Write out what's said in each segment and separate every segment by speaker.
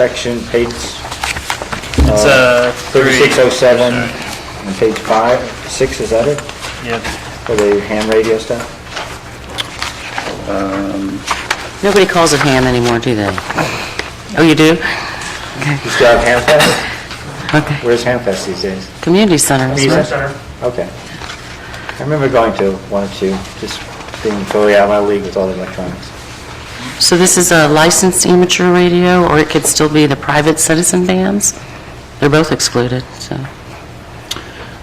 Speaker 1: section, page
Speaker 2: It's uh, three.
Speaker 1: 3607, and page 5, 6, is that it?
Speaker 2: Yep.
Speaker 1: For the ham radio stuff?
Speaker 3: Nobody calls it ham anymore, do they? Oh, you do?
Speaker 1: You still have Ham Fest?
Speaker 3: Okay.
Speaker 1: Where's Ham Fest these days?
Speaker 3: Community center. is
Speaker 1: Community
Speaker 3: where-
Speaker 1: center. Okay. I remember going to one or two, just being totally out of my league with all the electronics.
Speaker 3: So this is a licensed amateur radio, or it could still be the private citizen bands? They're both excluded, so.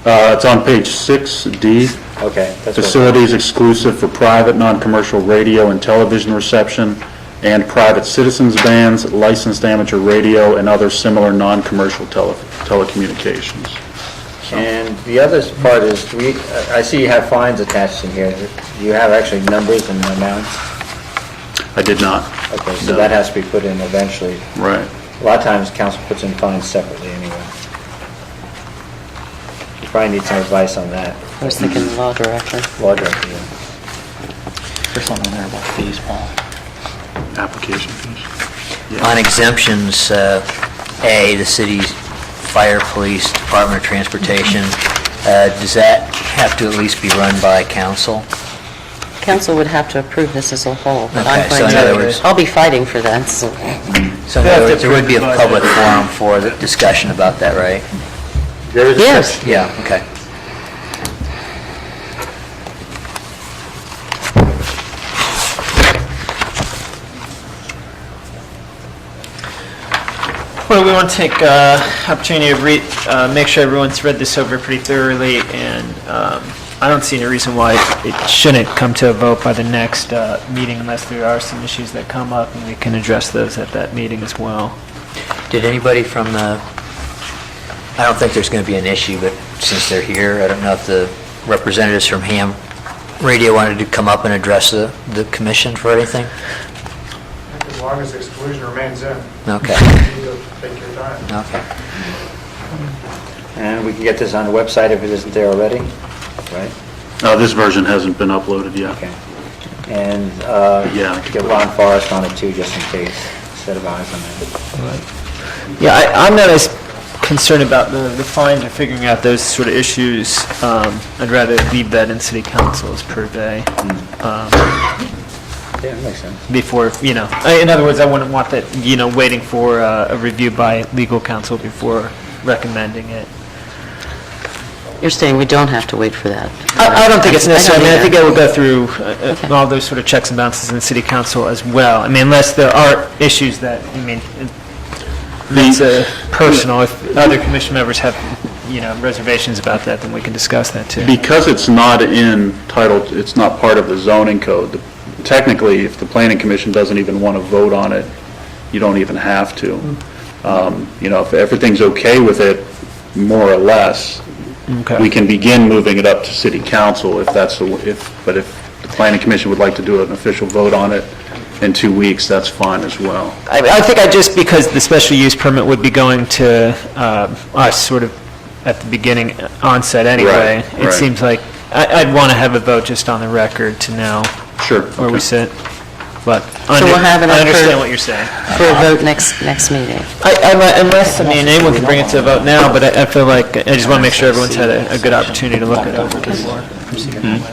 Speaker 4: Uh, It's on page 6D.
Speaker 1: Okay. that's what-
Speaker 4: Facilities exclusive for private, non-commercial radio and television reception and private citizens bands, licensed amateur radio, and other similar non-commercial tele- telecommunications.
Speaker 1: And the other part is, do we, I I see you have fines attached in here. Do you have actually numbers and amounts?
Speaker 4: I did not.
Speaker 1: Okay, so
Speaker 4: No.
Speaker 1: that has to be put in eventually.
Speaker 4: Right.
Speaker 1: A lot of times, council puts in fines separately anyway. You probably need some advice on that,
Speaker 3: I was thinking the law director.
Speaker 1: law director. yeah.
Speaker 5: There's something there about fees, Paul.
Speaker 4: Application fees.
Speaker 5: On exemptions, uh, A, the city's fire, police, Department of Transportation, uh, does that have to at least be run by council?
Speaker 3: Council would have to approve this as a whole, but I'm
Speaker 5: Okay, so
Speaker 3: going
Speaker 5: in other words-
Speaker 3: to, I'll be fighting for that, so.
Speaker 5: So in other words, there would be a public forum for the discussion about that, right?
Speaker 1: There is a
Speaker 3: Yes.
Speaker 5: Yeah, okay.
Speaker 2: Well, we want to take uh, opportunity to read, uh, make sure everyone's read this over pretty thoroughly, and um, I don't see any reason why it shouldn't come to a vote by the next uh, meeting unless there are some issues that come up, and we can address those at that meeting as well.
Speaker 5: Did anybody from the, I don't think there's going to be an issue, but since they're here, I don't know if the representatives from Ham Radio wanted to come up and address the, the commission for anything?
Speaker 6: As long as the exclusion remains in,
Speaker 5: Okay,
Speaker 6: you need to take your time.
Speaker 5: okay.
Speaker 1: And we can get this on the website if it isn't there already, right?
Speaker 4: Uh, This version hasn't been uploaded yet.
Speaker 1: Okay. And uh,
Speaker 4: Yeah.
Speaker 1: get Ron Forrest on it too, just in case, set of eyes on that.
Speaker 2: Yeah, I, I'm not as concerned about the, the fines or figuring out those sort of issues. Um, I'd rather leave that in city council's purvey.
Speaker 1: Yeah, that makes sense.
Speaker 2: before, you know, I- in other words, I wouldn't want that, you know, waiting for uh, a review by legal counsel before recommending it.
Speaker 3: You're saying we don't have to wait for that?
Speaker 2: I I don't think it's necessary, I mean, I think
Speaker 3: either.
Speaker 2: I would go through uh, uh, all those sort of checks and balances in city council as well. I mean, unless there are issues that, I mean, it's uh, personal, if other commission members have, you know, reservations about that, then we can discuss that too.
Speaker 4: Because it's not in title, it's not part of the zoning code, the- technically, if the planning commission doesn't even want to vote on it, you don't even have to. Um, You know, if everything's okay with it, more or less,
Speaker 2: Okay.
Speaker 4: we can begin moving it up to city council if that's, the w- if, but if the planning commission would like to do an official vote on it in two weeks, that's fine as well.
Speaker 2: I, I think I just, because the special use permit would be going to um, us sort of at the beginning onset anyway.
Speaker 4: Right,
Speaker 2: It
Speaker 4: right.
Speaker 2: seems like, I, I'd want to have a vote just on the record to know
Speaker 4: Sure.
Speaker 2: where we
Speaker 4: okay.
Speaker 2: sit. But I
Speaker 3: So we'll have it
Speaker 2: under- I
Speaker 3: up
Speaker 2: understand
Speaker 3: for-
Speaker 2: what you're saying.
Speaker 3: For
Speaker 5: Uh-huh.
Speaker 3: a vote next, next meeting.
Speaker 2: I- I mi- Unless, I mean, anyone can bring it to a vote now, but I I feel like, I just want to make sure everyone's had a a good opportunity to look it over before.
Speaker 4: Hmm.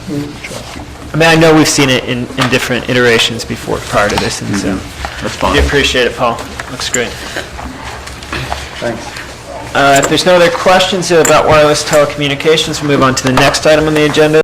Speaker 2: I mean, I know we've seen it in, in different iterations before prior to this, and so.
Speaker 4: Mm-hmm. That's fine.
Speaker 2: We appreciate it, Paul. Looks great.
Speaker 1: Thanks.
Speaker 2: Uh, If there's no other questions about wireless telecommunications, we'll move on to the next item on the agenda,